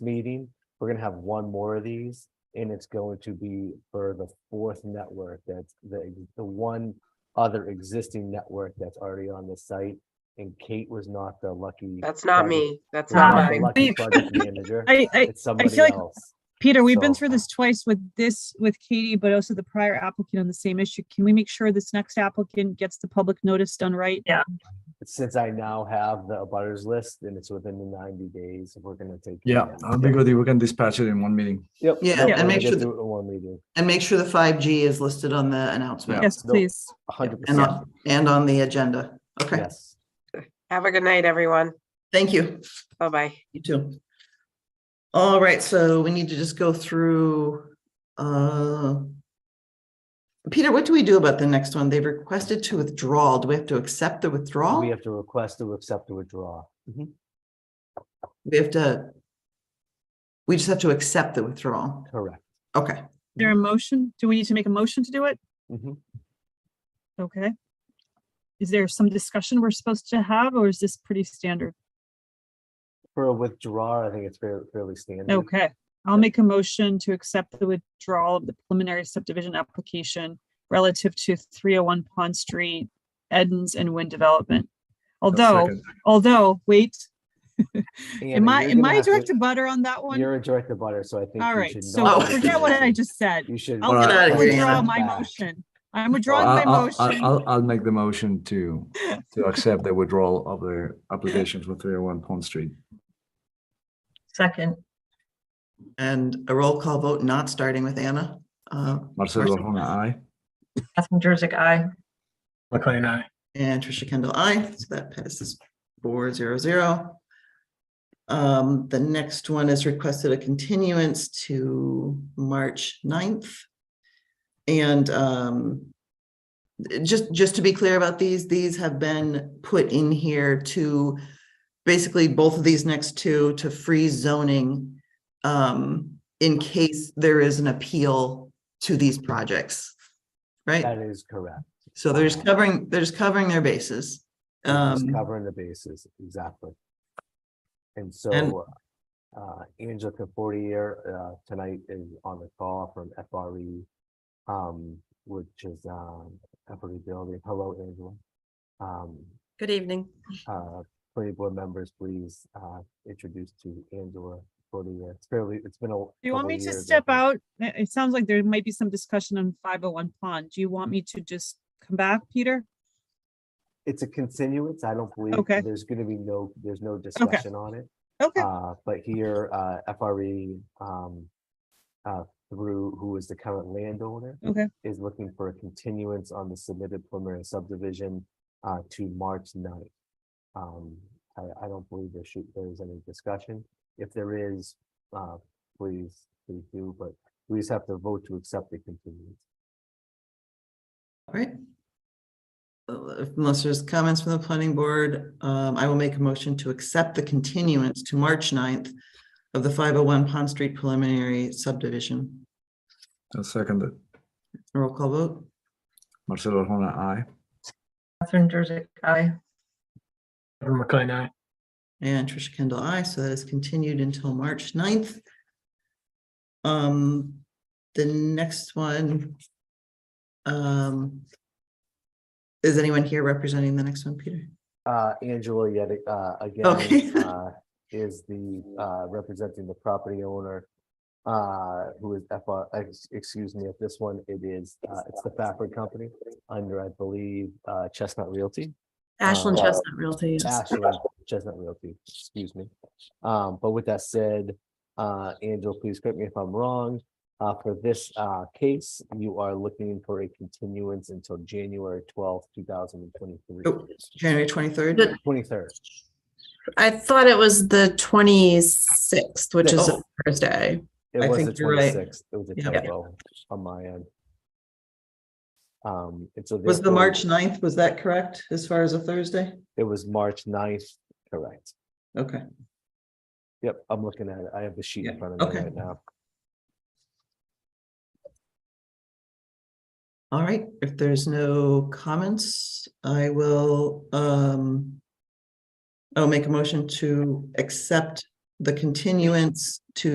meeting. We're gonna have one more of these and it's going to be for the fourth network that's the, the one other existing network that's already on the site. And Kate was not the lucky. That's not project- me. That's was not not the mine. lucky Beep. project manager. I, I, It's somebody like- else. Peter, we've been So- through this twice with this, with Katie, but also the prior applicant on the same issue. Can we make sure this next applicant gets the public notice done right? Since I now have the abutters list and it's within the ninety days, we're gonna take. care Yeah, of that. I'll be good if we can dispatch it in one meeting. Yep. Yep, Yeah, and we'll make get sure through it in One meeting, And make sure the five G is listed on the announcement Yes, No. please. a hundred and percent, on, and on the agenda. Okay, yes. Have a good night, everyone. thank you. Bye-bye. You too. All right, so we need to just go through, uh. Peter, what do we do about the next one? They requested to withdraw. Do we have to accept the withdrawal? We have to request to accept the withdrawal. Mm-hmm. We have to. We just have to accept the withdrawal. Correct. Okay, Is There a motion? Do we need to make a motion to do it? Mm-hmm. Mhm. Okay. Is there some discussion we're supposed to have, or is this pretty standard? For a withdrawal, I think it's fair- fairly standard. Okay, I'll make a motion to accept the withdrawal of the preliminary subdivision application relative to three oh one Pond Street, Edens and Wind Development. Although, Second. although, wait, Anna, am I, you're am gonna I have to- direct to butter on that one? You're a direct abutter, so I think. All you right, should so not- forget what I just said. You should. I'll All right. Get out of here, withdraw Anna. my Back. motion. I'm withdrawing my I'll, I'll- I'll, motion. I'll- I'll make the motion to, to accept the withdrawal of the application for three oh one Pond Street. Second, and a roll call vote, not starting with Anna. Uh, Marcelo Hona, aye. Catherine Jersey, aye. McLean, aye. And Trisha Kendall, I. So that passes four zero zero. Um, the next one is requested a continuance to March 9th. And um, just, just to be clear about these, these have been put in here to basically both of these next two to freeze zoning um, in case there is an appeal to these projects. Right? That is correct. So they're just covering, they're just covering their bases. We're just Um, Covering the bases, exactly. And so uh, Angela Confortier uh, tonight is on the call from FRE, um, which is um, FRE building. Hello, Angela. Um, Good evening. uh, planning board members, please uh, introduce to Angela Confortier. It's fairly, it's been a. Do you want me couple to years, I step think. out? It it sounds like there might be some discussion on five oh one pond. Do you want me to just come back, Peter? It's a continuance. I don't believe. Okay. There's gonna be no, there's no discussion on it. Okay, Uh, but here, uh, FRE, um, uh, through, who is the current landowner, okay. is looking for a continuance on the submitted preliminary subdivision, uh, to March 9th. Um, I, I don't believe there should, there is any discussion. If there is, uh, please, please do, but we just have to vote to accept the continuance. right. Uh, Unless there's comments from the planning board, um, I will make a motion to accept the continuance to March 9th of the five oh one Pond Street preliminary subdivision. I'll second it. Roll call vote. Marcelo Hona, aye. Catherine Jersey, aye. Kevin McLean, aye. And Trisha Kendall, I. So that is continued until March 9th. Um, the next one. Um. Is anyone here representing the next one, Peter? Uh, Angela yet, a- uh, Okay. again, uh, is the, uh, representing the property owner. Uh, who is FR, ex- excuse me, if this one, it is, uh, it's the Fafford Company under, I believe, uh, Chestnut Realty. Ashland Uh, Chestnut Realty. yes. Ashland Chestnut Realty, excuse me. Um, but with that said, uh, Angela, please correct me if I'm wrong. Uh, for this, uh, case, you are looking for a continuance until January twelfth, two thousand and Oh. twenty-three. January twenty-third? The- Twenty-third. I thought it was the twenty-sixth, which is a Oh. Thursday. It I was the think you're right. twenty-sixth, it was a Yeah. typo on my end. Um, and so. Was the therefore, March 9th, was that correct as far as a Thursday? It was March 9th. correct. Okay, Yep, I'm looking at it. I have the sheet in Yeah, front of me okay. right now. all right. If there's no comments, I will, um, I'll make a motion to accept the continuance to